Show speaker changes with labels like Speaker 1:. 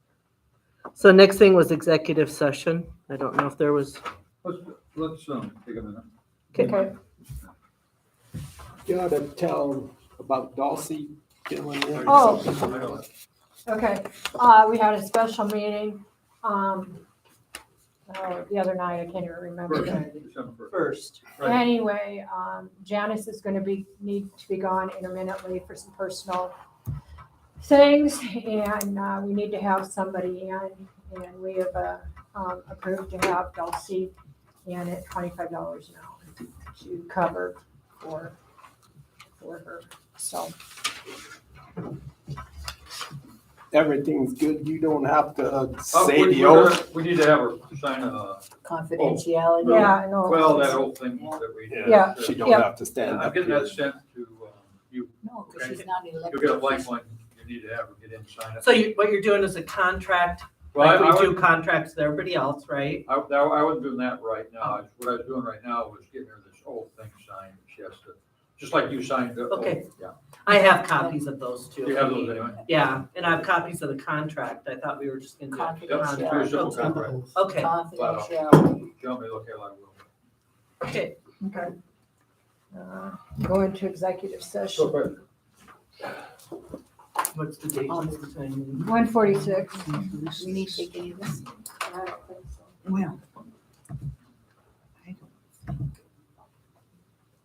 Speaker 1: So next thing was executive session. I don't know if there was,
Speaker 2: Let's, let's, um, take a minute.
Speaker 1: okay,
Speaker 3: You ought to tell about Dulcie killing them.
Speaker 2: Oh.
Speaker 4: Okay, uh, we had a special meeting, um, uh, the other night, I can't even remember.
Speaker 2: First,
Speaker 4: the-
Speaker 2: December first.
Speaker 3: First,
Speaker 2: Right.
Speaker 4: Anyway, um, Janice is gonna be, need to be gone intermittently for some personal things, and, uh, we need to have somebody in, and we have, uh, um, approved to have Dulcie in at twenty-five dollars an hour to cover for, for her, so.
Speaker 3: everything's good. You don't have to uh,
Speaker 2: Uh,
Speaker 3: say
Speaker 2: we-
Speaker 3: the
Speaker 2: we're
Speaker 3: oath.
Speaker 2: gonna- We need to have her sign a,
Speaker 5: confidentiality.
Speaker 4: Yeah, I know.
Speaker 2: well, that whole thing that we. did.
Speaker 4: Oh. Yeah.
Speaker 3: She don't
Speaker 4: Yeah.
Speaker 3: have to stand
Speaker 2: I'm
Speaker 3: up
Speaker 2: getting
Speaker 3: here.
Speaker 2: that sent to, um, you,
Speaker 5: No, because she's not an
Speaker 2: you'll
Speaker 5: elected
Speaker 2: get a blank
Speaker 5: official.
Speaker 2: one, you need to have her get in, sign it.
Speaker 1: so you, what you're doing is a contract,
Speaker 2: Well, I,
Speaker 1: like
Speaker 2: I
Speaker 1: we do
Speaker 2: would,
Speaker 1: contracts with everybody else, right?
Speaker 2: I, that- I wasn't doing that right
Speaker 1: Oh.
Speaker 2: now, what I was doing right now was getting her this whole thing signed, she has to, just like you signed the. whole-
Speaker 1: Okay.
Speaker 2: Yeah,
Speaker 1: I have copies of those
Speaker 2: Do
Speaker 1: too.
Speaker 2: you have those anyway.
Speaker 1: Yeah, and I have copies of the contract. I thought we were just gonna do. it.
Speaker 2: Yep, do a simple
Speaker 5: Confidentiality.
Speaker 2: contract.
Speaker 1: Okay,
Speaker 5: Confidentiality.
Speaker 2: You want me to look at it, I will.
Speaker 1: okay.
Speaker 4: Uh, Go into executive
Speaker 2: So,
Speaker 4: session,
Speaker 2: but
Speaker 1: What's the date?
Speaker 5: Um,
Speaker 1: What's the time?
Speaker 4: one forty-six.
Speaker 5: We need to take any of this.
Speaker 4: I
Speaker 5: Well.